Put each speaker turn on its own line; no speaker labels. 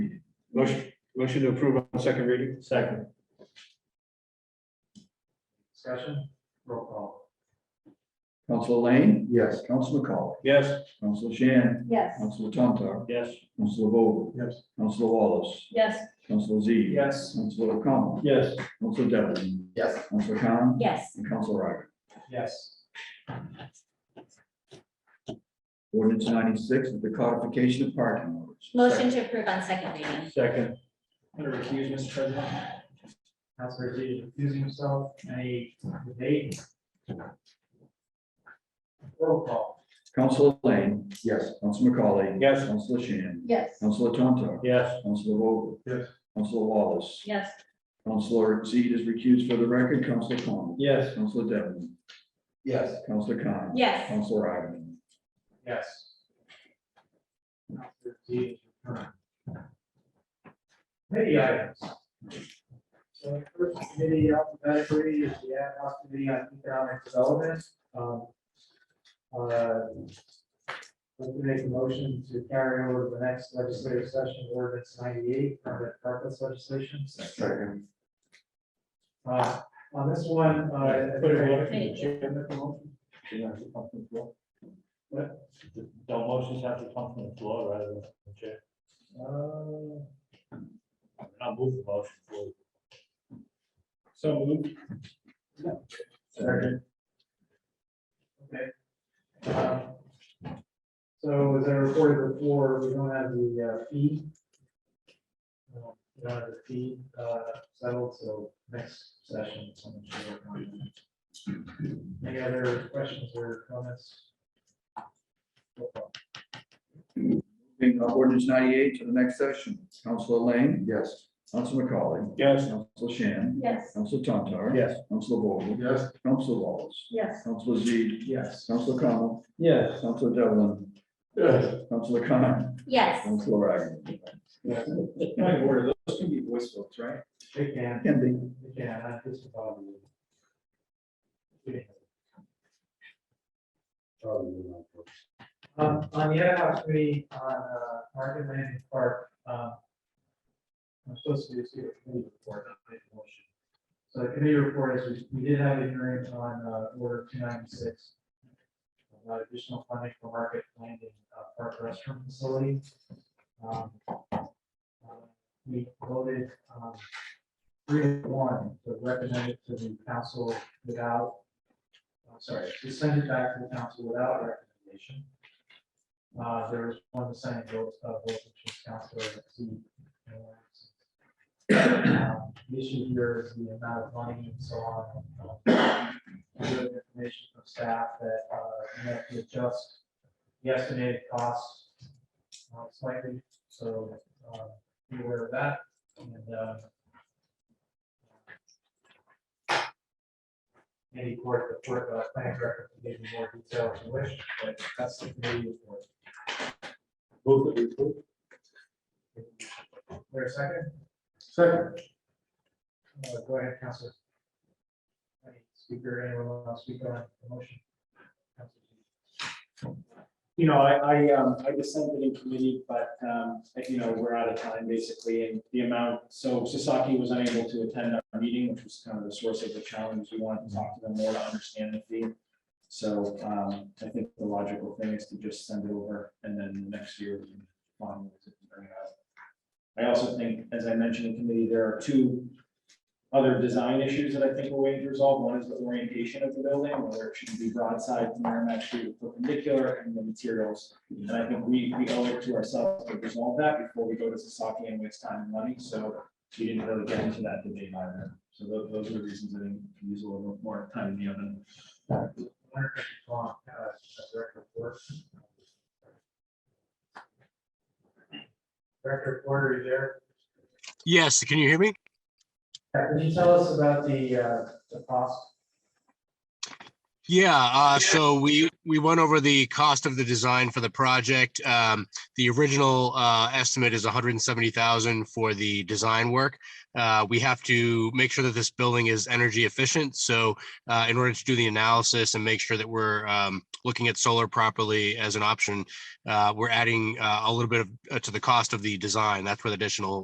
Motion, motion to approve on second reading?
Second. Discussion, roll call.
Council Lane,
Yes.
Council McCall,
Yes.
Council Shan,
Yes.
Council Tontar,
Yes.
Council Vogel,
Yes.
Council Wallace,
Yes.
Council Z.
Yes.
Council O'Connell,
Yes.
Council Devlin,
Yes.
Council Con,
Yes.
and Council Ryder.
Yes.
Ordinance ninety-six is the codification of parking orders.
Motion to approve on second reading.
Second. I'm gonna recuse, Mr. President. Councilor Z refusing himself, any debate? Roll call.
Council Lane,
Yes.
Council McCauley.
Yes.
Council Shan,
Yes.
Council Tontar,
Yes.
Council Vogel.
Yes.
Council Wallace,
Yes.
Councilor Z is recused for the record, Council Con,
Yes.
Council Devlin,
Yes.
Council Con.
Yes.
Council Ryder.
Yes. Committee items. So the first committee alphabetically is the ad hoc committee on economic development. Um, uh, Let me make a motion to carry over to the next legislative session, ordinance ninety-eight, permanent purpose legislation.
Second.
Uh, On this one, uh.
Put it
in. Thank you.
Don't motions have to come from the floor rather than the chair? Uh, I'll move the motion. So moved.
Second.
Uh, So as I reported before, we don't have the uh, fee. Uh, We don't have the fee uh, settled, so next session. someone should work on it. Any other questions or comments?
Moving uh, ordinance ninety-eight to the next session. Council Lane. Yes. Council McCauley.
Yes.
Council Shan.
Yes.
Council Tontar.
Yes.
Council Vogel.
Yes.
Council Wallace.
Yes.
Council Z.
Yes.
Council Connell.
Yes.
Council Devlin.
Yes.
Council Con.
Yes.
Council Ryder.
Point of order, those can be voice votes, right?
Big man,
Can
big man, I just about. uh, Um, on the ad hoc committee on, uh, Market Landing Park, um, I'm supposed to do a committee report, not make a motion. So the committee report is, we- we did have a hearing on, uh, order two ninety-six. About additional funding for Market Landing uh, Park Restroom Facility. Um, uh, We voted, um, three to one to recommend it to the council without, I'm sorry, to send it back to the council without recommendation. Uh, there was one dissenting vote, uh, vote, which was Counselor C. Um, The issue here is the amount of money and so on. um, we have Information from staff that, uh, you have to adjust the estimated costs uh, slightly, so, uh, be aware of that, and, uh, any court, the court, uh, planning director can give you more detail if you wish, but that's the committee report.
Both of you.
There a second?
Second.
Uh, Go ahead, Counselor. Any Speaker, anyone want to speak on the motion?
You know, I, I, um, I dissented in committee, but, um, you know, we're out of time basically and the amount, so Sasaki was unable to attend our meeting, which was kind of the source of the challenge. We wanted to talk to them more to understand the fee. So, um, I think the logical thing is to just send it over and then next year we can find ways to bring it up. I also think, as I mentioned in committee, there are two other design issues that I think we're waiting to resolve. One is the orientation of the building, whether it should be broadside to Merrimack Street or perpendicular and the materials. And I think we, we owe it to ourselves to resolve that before we go to Sasaki and waste time and money. So we didn't really get into that debate either. So tho- those are the reasons I think we can use a little bit more time in the oven.
Wonder if you want, uh, a Director Porter. Director Porter, are you there?
Yes, can you hear me?
Yeah, Can you tell us about the, uh, the cost?
Yeah, uh, so we, we went over the cost of the design for the project. Um, the original, uh, estimate is hundred and seventy thousand for the design work. Uh, we have to make sure that this building is energy efficient, so, uh, in order to do the analysis and make sure that we're, um, looking at solar properly as an option, uh, we're adding, uh, a little bit of, uh, to the cost of the design. That's where the additional